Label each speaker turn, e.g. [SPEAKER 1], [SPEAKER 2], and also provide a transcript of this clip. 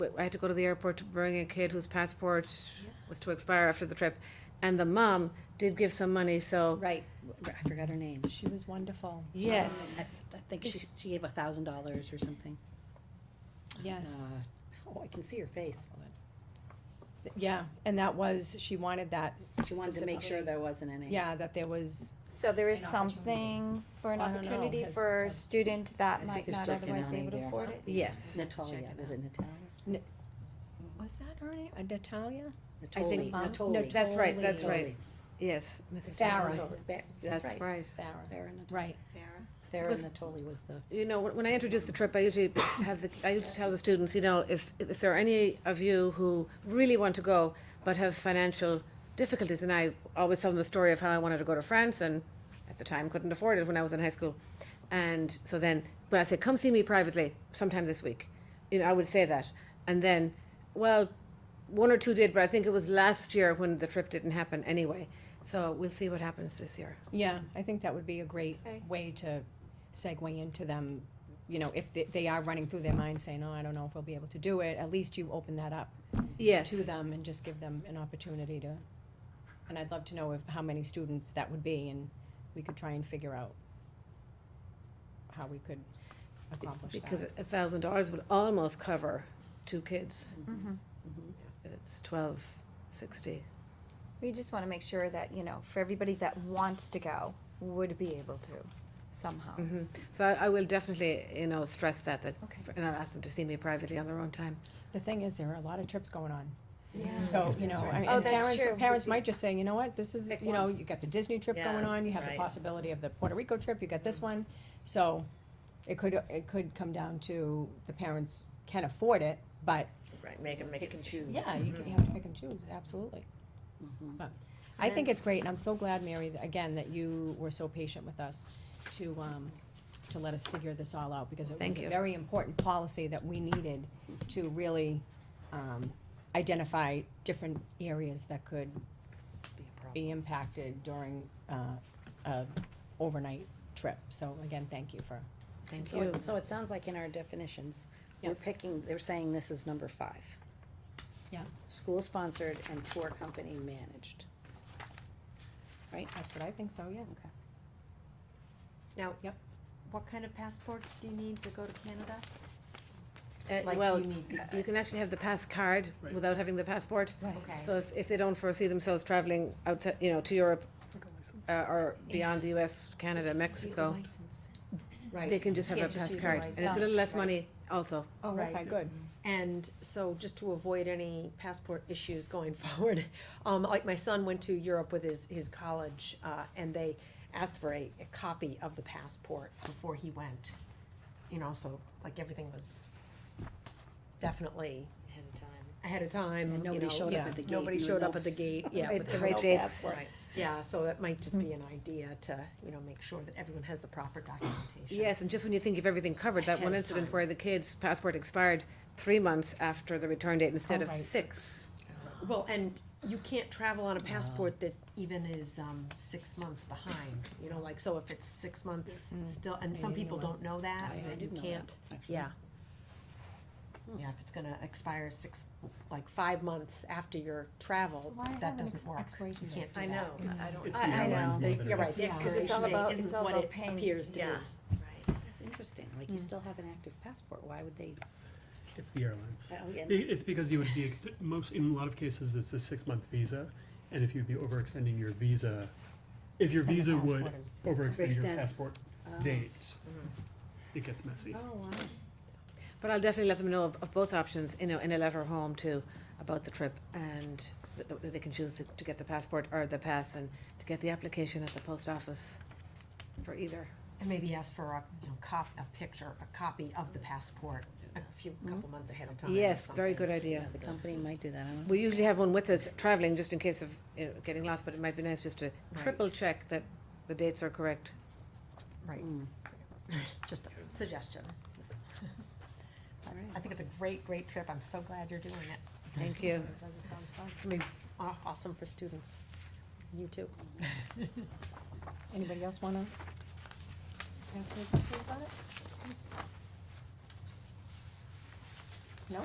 [SPEAKER 1] w- I had to go to the airport to bring a kid whose passport was to expire after the trip, and the mom did give some money, so.
[SPEAKER 2] Right, I forgot her name.
[SPEAKER 3] She was wonderful. Um,
[SPEAKER 1] Yes.
[SPEAKER 2] I I think she, she gave a thousand dollars or something.
[SPEAKER 3] Yes.
[SPEAKER 2] Uh, Oh, I can see her face.
[SPEAKER 3] Yeah, and that was, she wanted that,
[SPEAKER 2] She wanted to make sure there wasn't any.
[SPEAKER 3] yeah, that there was,
[SPEAKER 4] So there is
[SPEAKER 3] An opportunity.
[SPEAKER 4] something for an
[SPEAKER 3] I don't know,
[SPEAKER 4] opportunity
[SPEAKER 3] has-
[SPEAKER 4] for a
[SPEAKER 3] has-
[SPEAKER 4] student that
[SPEAKER 2] think
[SPEAKER 4] might
[SPEAKER 2] there's
[SPEAKER 4] not
[SPEAKER 2] just an
[SPEAKER 4] otherwise be
[SPEAKER 2] eye
[SPEAKER 4] able to
[SPEAKER 2] there,
[SPEAKER 4] afford
[SPEAKER 2] huh?
[SPEAKER 4] it.
[SPEAKER 1] Yes.
[SPEAKER 2] Natalia, was it Natalia?
[SPEAKER 3] was that her name? Uh, Natalia?
[SPEAKER 1] I think-
[SPEAKER 2] Natoli, Natoli.
[SPEAKER 1] That's right,
[SPEAKER 3] Totally.
[SPEAKER 1] that's right. Yes, Mrs.
[SPEAKER 3] Farah.
[SPEAKER 1] Totoli.
[SPEAKER 2] Ba- That's
[SPEAKER 1] That's
[SPEAKER 2] right.
[SPEAKER 1] right.
[SPEAKER 3] Farah.
[SPEAKER 2] Farah Natoli.
[SPEAKER 3] Right,
[SPEAKER 2] Sarah
[SPEAKER 1] Because-
[SPEAKER 2] Natoli was the.
[SPEAKER 1] You know, when when I introduce the trip, I usually have the, I usually tell the students, you know, if, if there are any of you who really want to go but have financial difficulties, and I always tell them the story of how I wanted to go to France and at the time couldn't afford it when I was in high school. And so then, when I say, come see me privately sometime this week, you know, I would say that. And then, well, one or two did, but I think it was last year when the trip didn't happen anyway. So we'll see what happens this year.
[SPEAKER 3] yeah, I think that would be a great
[SPEAKER 4] Okay.
[SPEAKER 3] way to segue into them, you know, if they, they are running through their mind saying, oh, I don't know if we'll be able to do it, at least you open that up
[SPEAKER 1] Yes.
[SPEAKER 3] to them and just give them an opportunity to, and I'd love to know if, how many students that would be, and we could try and figure out how we could accomplish that.
[SPEAKER 1] Because a thousand dollars would almost cover two kids.
[SPEAKER 5] Mm-hmm.
[SPEAKER 4] Mm-hmm.
[SPEAKER 1] It's twelve sixty.
[SPEAKER 4] We just wanna make sure that, you know, for everybody that wants to go, would be able to somehow.
[SPEAKER 6] Oh.
[SPEAKER 1] Mm-hmm. So I, I will definitely, you know, stress that, that,
[SPEAKER 4] Okay.
[SPEAKER 1] and I'll ask them to see me privately on their own time.
[SPEAKER 3] The thing is, there are a lot of trips going on.
[SPEAKER 4] Yeah.
[SPEAKER 3] So, you know, I mean,
[SPEAKER 4] Oh,
[SPEAKER 3] and
[SPEAKER 4] that's
[SPEAKER 3] parents,
[SPEAKER 4] true.
[SPEAKER 3] parents might just say, you know what, this is,
[SPEAKER 2] Pick
[SPEAKER 3] you know, you got the Disney trip going on, you have the possibility of the Puerto Rico trip, you got this
[SPEAKER 4] Mm.
[SPEAKER 3] one. So it could, it could come down to the parents can afford it, but
[SPEAKER 6] Right, make it, make Mm-hmm.
[SPEAKER 2] Pick and
[SPEAKER 6] it.
[SPEAKER 2] choose.
[SPEAKER 3] yeah,
[SPEAKER 4] Mm-hmm.
[SPEAKER 3] you can- you have to pick and choose, absolutely.
[SPEAKER 2] mm-hmm,
[SPEAKER 3] But I think it's great, and I'm so glad, Mary, that- again, that you were so patient with us to, um, to let us figure this all out, because it
[SPEAKER 1] Thank
[SPEAKER 3] was a
[SPEAKER 1] you.
[SPEAKER 3] very important policy that we needed to really, um, identify different areas that could
[SPEAKER 2] Be a problem.
[SPEAKER 3] be impacted during, uh, a overnight trip. So again, thank you for,
[SPEAKER 1] Thank
[SPEAKER 2] So
[SPEAKER 1] you.
[SPEAKER 2] it- So it sounds like in our definitions,
[SPEAKER 3] Yeah.
[SPEAKER 2] we're picking, they're saying this is number five.
[SPEAKER 3] Yeah.
[SPEAKER 2] School-sponsored and tour company managed.
[SPEAKER 3] that's what I think, so, yeah.
[SPEAKER 5] Now,
[SPEAKER 3] Yep.
[SPEAKER 5] what kind of passports do you need to go to Canada?
[SPEAKER 1] Uh,
[SPEAKER 5] Like,
[SPEAKER 1] Well,
[SPEAKER 5] do you need,
[SPEAKER 1] you can actually have the pass card without having the passport.
[SPEAKER 5] okay,
[SPEAKER 1] So if, if they don't foresee themselves traveling out, to- you know, to Europe, uh, or beyond the US, Canada, Mexico,
[SPEAKER 5] right.
[SPEAKER 1] they can just have
[SPEAKER 5] You
[SPEAKER 1] a
[SPEAKER 5] can't
[SPEAKER 1] pass
[SPEAKER 5] use
[SPEAKER 1] card.
[SPEAKER 5] license.
[SPEAKER 1] And it's a little less
[SPEAKER 5] Right.
[SPEAKER 1] money also.
[SPEAKER 3] Oh,
[SPEAKER 5] Right.
[SPEAKER 3] okay, good.
[SPEAKER 5] And so just to avoid any passport issues going forward, um, like my son went to Europe with his, his college, uh, and they asked for a, a copy of the passport before he went. You know, so like everything was definitely
[SPEAKER 2] Ahead of time.
[SPEAKER 5] ahead of time,
[SPEAKER 2] And
[SPEAKER 5] you
[SPEAKER 2] nobody
[SPEAKER 5] know,
[SPEAKER 2] showed
[SPEAKER 5] yeah.
[SPEAKER 2] up at the gate.
[SPEAKER 5] Nobody
[SPEAKER 2] you
[SPEAKER 5] showed
[SPEAKER 2] know.
[SPEAKER 5] up at the gate, yeah.
[SPEAKER 1] Right,
[SPEAKER 5] with
[SPEAKER 1] the right dates.
[SPEAKER 5] Right, yeah, so that might just
[SPEAKER 2] Mm.
[SPEAKER 5] be an idea to, you know, make sure that everyone has the proper documentation.
[SPEAKER 1] Yes, and just when you think you've everything covered, that
[SPEAKER 5] Ahead
[SPEAKER 1] one
[SPEAKER 5] of
[SPEAKER 1] incident
[SPEAKER 5] time.
[SPEAKER 1] where the kid's passport expired three months after the return date instead
[SPEAKER 3] Oh,
[SPEAKER 1] of
[SPEAKER 3] right.
[SPEAKER 1] six.
[SPEAKER 5] Well, and you can't travel on a passport that even is, um, six months behind, you know, like, so if it's six months
[SPEAKER 4] Mm.
[SPEAKER 5] still, and some people don't know that,
[SPEAKER 2] I- I
[SPEAKER 5] then you
[SPEAKER 2] didn't know that,
[SPEAKER 5] can't,
[SPEAKER 2] actually.
[SPEAKER 5] yeah. Yeah, if it's gonna expire six, like, five months after your travel, that doesn't work.
[SPEAKER 3] Expiration
[SPEAKER 5] You
[SPEAKER 3] date.
[SPEAKER 5] can't do that.
[SPEAKER 6] I don't.
[SPEAKER 4] I- I know.
[SPEAKER 5] They- You're right, the
[SPEAKER 4] Yeah, 'cause it's all
[SPEAKER 5] expiration
[SPEAKER 4] about-
[SPEAKER 5] date
[SPEAKER 4] it's
[SPEAKER 5] isn't
[SPEAKER 4] all
[SPEAKER 5] what
[SPEAKER 4] about
[SPEAKER 5] it
[SPEAKER 4] paying.
[SPEAKER 5] appears to be.
[SPEAKER 6] Yeah.
[SPEAKER 2] That's interesting, like you still have an active passport, why would they?
[SPEAKER 7] It's the airlines.
[SPEAKER 2] Oh,
[SPEAKER 7] I-
[SPEAKER 2] yeah.
[SPEAKER 7] It's because you would be, ext- most, in a lot of cases, it's a six-month visa, and if you'd be overextending your visa, if your
[SPEAKER 3] the
[SPEAKER 7] visa would
[SPEAKER 3] passport is-
[SPEAKER 7] overextend your
[SPEAKER 2] Overextend.
[SPEAKER 7] passport
[SPEAKER 2] Oh.
[SPEAKER 7] date, it gets messy.
[SPEAKER 2] Oh, wow.
[SPEAKER 1] But I'll definitely let them know of, of both options, you know, in a letter home too, about the trip and that, that they can choose to, to get the passport or the pass and to get the application at the post office for either.
[SPEAKER 5] And maybe ask for a, you know, cop, a picture, a copy of the passport a few, couple
[SPEAKER 4] Hmm?
[SPEAKER 5] months ahead of time. or
[SPEAKER 1] Yes, very
[SPEAKER 5] something.
[SPEAKER 1] good idea.
[SPEAKER 2] Yeah, the company might do that, I don't know.
[SPEAKER 1] We usually have one with us traveling just in case of, you know, getting lost, but it might be nice just to triple check that the dates are correct.
[SPEAKER 5] Right. Just a suggestion. I think it's a great, great trip. I'm so glad you're doing it.
[SPEAKER 1] Thank you.
[SPEAKER 5] It's gonna be aw- awesome for students. You too.
[SPEAKER 3] Anybody else wanna? ask me a question about it?